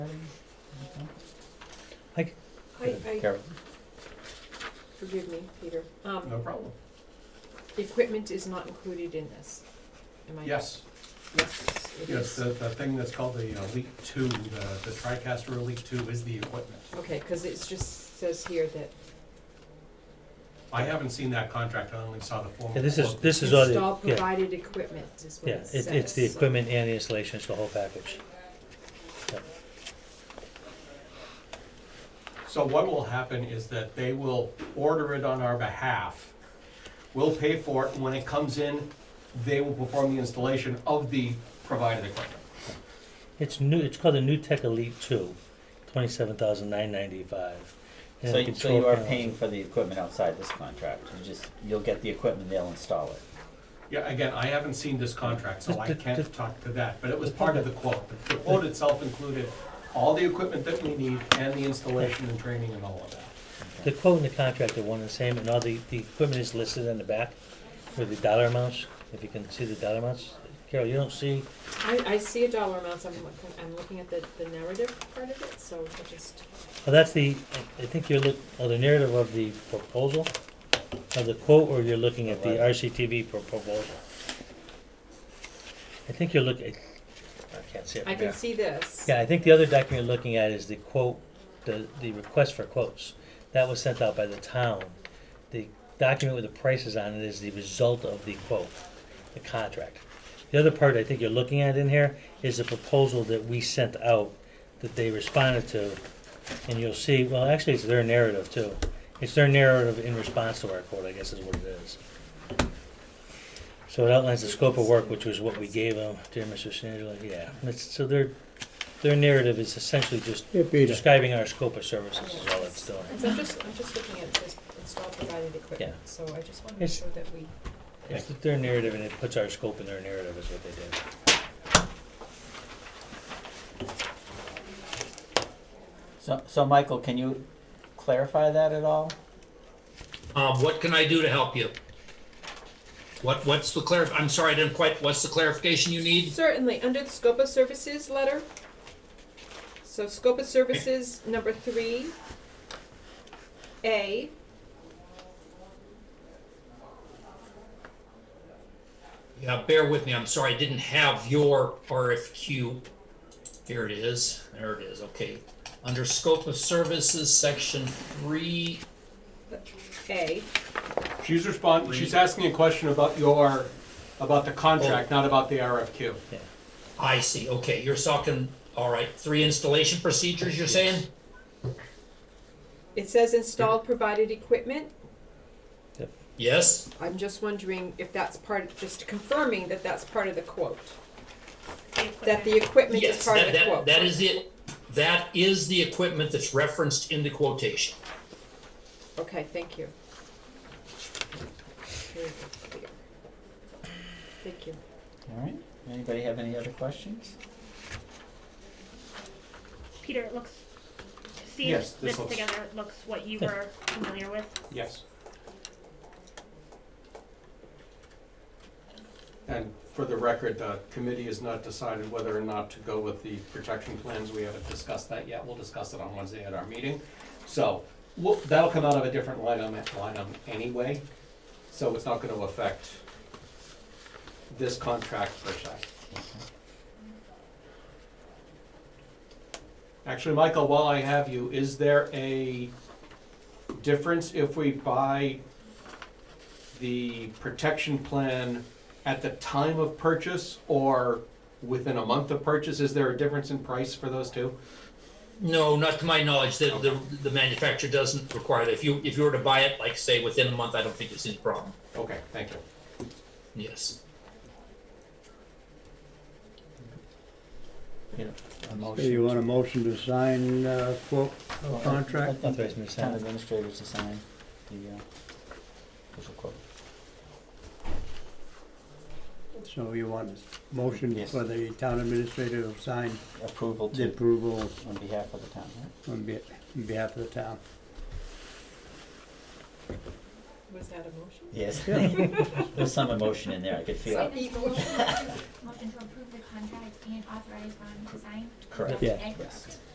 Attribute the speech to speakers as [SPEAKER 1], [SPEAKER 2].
[SPEAKER 1] I, I,
[SPEAKER 2] Carol,
[SPEAKER 1] forgive me, Peter, um,
[SPEAKER 3] No problem.
[SPEAKER 1] the equipment is not included in this, am I?
[SPEAKER 3] Yes,
[SPEAKER 1] Yes, it
[SPEAKER 3] yes,
[SPEAKER 1] is.
[SPEAKER 3] the, the thing that's called the uh, Elite Two, the, the TriCaster Elite Two is the equipment.
[SPEAKER 1] Okay, cause it's just says here that
[SPEAKER 3] I haven't seen that contract, I only saw the formal.
[SPEAKER 4] Yeah, this is,
[SPEAKER 3] quote.
[SPEAKER 4] this is all
[SPEAKER 1] install
[SPEAKER 4] the, yeah,
[SPEAKER 1] provided equipment is what
[SPEAKER 4] yeah,
[SPEAKER 1] it says.
[SPEAKER 4] it, it's the
[SPEAKER 1] so-
[SPEAKER 4] equipment and the installation, it's the whole package.
[SPEAKER 3] So what will happen is that they will order it on our behalf. We'll pay for it, and when it comes in, they will perform the installation of the provided equipment.
[SPEAKER 4] It's new, it's called the New Tech Elite Two, twenty-seven thousand nine ninety-five.
[SPEAKER 5] So, y- so you are paying for the equipment outside this contract, you just, you'll get the equipment, they'll install it.
[SPEAKER 3] Yeah, again, I haven't seen this contract, so
[SPEAKER 4] Just
[SPEAKER 3] I
[SPEAKER 4] the-
[SPEAKER 3] can't
[SPEAKER 4] the-
[SPEAKER 3] talk to that, but it was part of the quote. The- The quote itself included all the equipment that we need and the installation and training and all of that.
[SPEAKER 4] The quote and the contract are one and the same, and all the, the equipment is listed in the back with the dollar amounts, if you can see the dollar amounts. Carol, you don't see,
[SPEAKER 1] I, I see a dollar amount, so I'm looking, I'm looking at the, the narrative part of it, so I just,
[SPEAKER 4] well, that's the, I I think you're look, oh, the narrative of the proposal, of the quote, or you're looking at the
[SPEAKER 5] Right.
[SPEAKER 4] RCTV pro- proposal? I think you're looking, I can't see it
[SPEAKER 1] I
[SPEAKER 4] from
[SPEAKER 1] can
[SPEAKER 4] here.
[SPEAKER 1] see this.
[SPEAKER 4] Yeah, I think the other document you're looking at is the quote, the, the request for quotes. That was sent out by the town. The document with the prices on it is the result of the quote, the contract. The other part I think you're looking at in here is the proposal that we sent out that they responded to. And you'll see, well, actually, it's their narrative too. It's their narrative in response to our quote, I guess is what it is. So it outlines the scope of work, which was what we gave them, dear Mr. Sandler, yeah. It's- So their, their narrative is essentially just
[SPEAKER 6] Yeah, Peter.
[SPEAKER 4] describing our scope of services is all it's doing.
[SPEAKER 1] So I'm just, I'm just looking at this install provided equipment, so I just wanna make
[SPEAKER 4] It's-
[SPEAKER 1] sure that we,
[SPEAKER 4] It's their narrative and it puts our scope in their narrative is what they did.
[SPEAKER 5] So, so Michael, can you clarify that at all?
[SPEAKER 7] Um, what can I do to help you? What, what's the clar, I'm sorry, I didn't quite, what's the clarification you need?
[SPEAKER 1] certainly, under the scope of services letter. So scope of services, number three. A.
[SPEAKER 7] Yeah, bear with me, I'm sorry, I didn't have your RFQ. Here it is, there it is, okay. Under scope of services, section three,
[SPEAKER 1] A,
[SPEAKER 3] She's responding, she's asking a question about your, about the contract, not about the RFQ.
[SPEAKER 7] I see, okay, you're talking, all right, three installation procedures, you're saying?
[SPEAKER 1] it says install provided equipment.
[SPEAKER 7] Yes,
[SPEAKER 1] I'm just wondering if that's part, of just confirming that that's part of the quote. That the equipment is
[SPEAKER 7] yes,
[SPEAKER 1] part of
[SPEAKER 7] that,
[SPEAKER 1] the
[SPEAKER 7] that,
[SPEAKER 1] quote.
[SPEAKER 7] that is it. That is the equipment that's referenced in the quotation.
[SPEAKER 1] Okay, thank you. Very clear. Thank you.
[SPEAKER 5] All right, anybody have any other questions?
[SPEAKER 8] Peter, it looks. See
[SPEAKER 3] Yes,
[SPEAKER 8] if
[SPEAKER 3] this
[SPEAKER 8] this
[SPEAKER 3] looks-
[SPEAKER 8] together looks what you were familiar with.
[SPEAKER 3] Yes. And for the record, the committee has not decided whether or not to go with the protection plans. We haven't discussed that yet. We'll discuss it on Wednesday at our meeting. So, we'll- that'll come out of a different line item, line item anyway, so it's not gonna affect this contract per se. Actually, Michael, while I have you, is there a difference if we buy the protection plan at the time of purchase or within a month of purchase? Is there a difference in price for those two?
[SPEAKER 7] No, not to my knowledge, the, the, the manufacturer doesn't require that. If you, if you were to buy it, like say within a month, I don't think it's any problem.
[SPEAKER 3] Okay, thank you.
[SPEAKER 7] Yes.
[SPEAKER 5] A
[SPEAKER 6] So
[SPEAKER 5] motion?
[SPEAKER 6] you want a motion to sign, uh, quote,
[SPEAKER 5] Well, I-
[SPEAKER 6] contract?
[SPEAKER 5] Oh, I
[SPEAKER 4] Authorize me
[SPEAKER 5] think the
[SPEAKER 4] to sign
[SPEAKER 5] town
[SPEAKER 4] it.
[SPEAKER 5] administrators to sign the, uh, official quote.
[SPEAKER 6] So you want a motion
[SPEAKER 5] Yes.
[SPEAKER 6] for the town administrator to sign
[SPEAKER 5] Approval
[SPEAKER 6] the
[SPEAKER 5] to,
[SPEAKER 6] approval
[SPEAKER 5] on behalf of the town, right?
[SPEAKER 6] on be- on behalf of the town?
[SPEAKER 1] Was that a motion?
[SPEAKER 5] Yes. There's some emotion in there, I could feel it.
[SPEAKER 1] Sorry.
[SPEAKER 9] Motion to approve the contract and authorize Ron to sign.
[SPEAKER 5] Correct.
[SPEAKER 6] Yeah.
[SPEAKER 9] Okay.
[SPEAKER 5] Yes.